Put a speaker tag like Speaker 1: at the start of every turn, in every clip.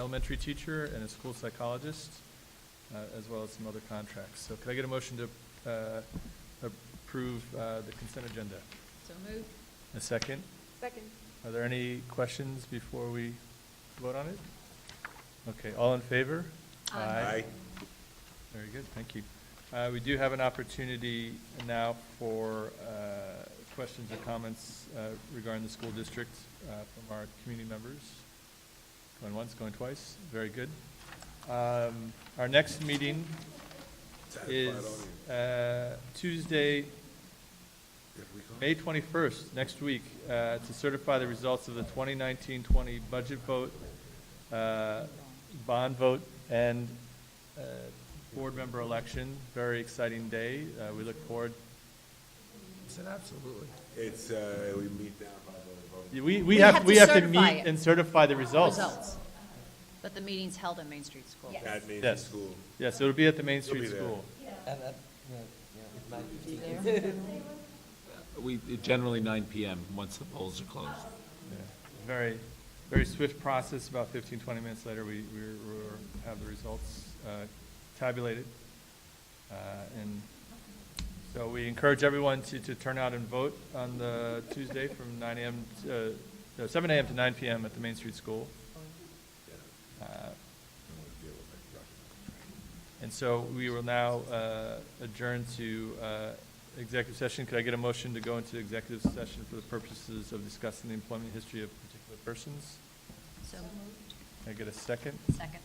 Speaker 1: elementary teacher and a school psychologist, uh, as well as some other contracts. So could I get a motion to uh, approve uh, the consent agenda?
Speaker 2: So moved.
Speaker 1: A second?
Speaker 3: Second.
Speaker 1: Are there any questions before we vote on it? Okay, all in favor?
Speaker 2: Aye.
Speaker 1: Very good, thank you. Uh, We do have an opportunity now for uh, questions or comments uh, regarding the school district uh, from our community members. Going once, going twice, very good. Um, Our next meeting is uh, Tuesday, May 21st, next week, uh, to certify the results of the 2019-20 budget vote, uh, bond vote, and uh, board member election. Very exciting day. Uh, We look forward,
Speaker 4: Absolutely.
Speaker 5: It's, uh, we meet down by the, vote.
Speaker 1: we we have, we have to
Speaker 2: certify
Speaker 1: meet
Speaker 2: it.
Speaker 1: and certify the results.
Speaker 2: Results. But the meeting's held at Main Street School.
Speaker 5: that means in
Speaker 1: Yes.
Speaker 5: school.
Speaker 1: Yes, it'll be at the Main
Speaker 5: You'll be
Speaker 1: Street
Speaker 5: there.
Speaker 1: School.
Speaker 4: And, uh, yeah, yeah, nine fifteen.
Speaker 6: We, generally 9 PM, once the polls are closed.
Speaker 1: Yeah. Very, very swift process. About 15, 20 minutes later, we, we were- have the results uh, tabulated. Uh, And so we encourage everyone to, to turn out and vote on the Tuesday from 9 AM, to- uh, no, 7 AM to 9 PM at the Main Street School. Uh, And so we will now uh, adjourn to uh, executive session. Could I get a motion to go into executive session for the purposes of discussing the employment history of particular persons?
Speaker 2: So moved.
Speaker 1: Can I get a second?
Speaker 2: Second.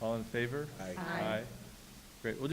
Speaker 1: All in favor?
Speaker 5: Aye.
Speaker 2: Aye.
Speaker 1: Great. We'll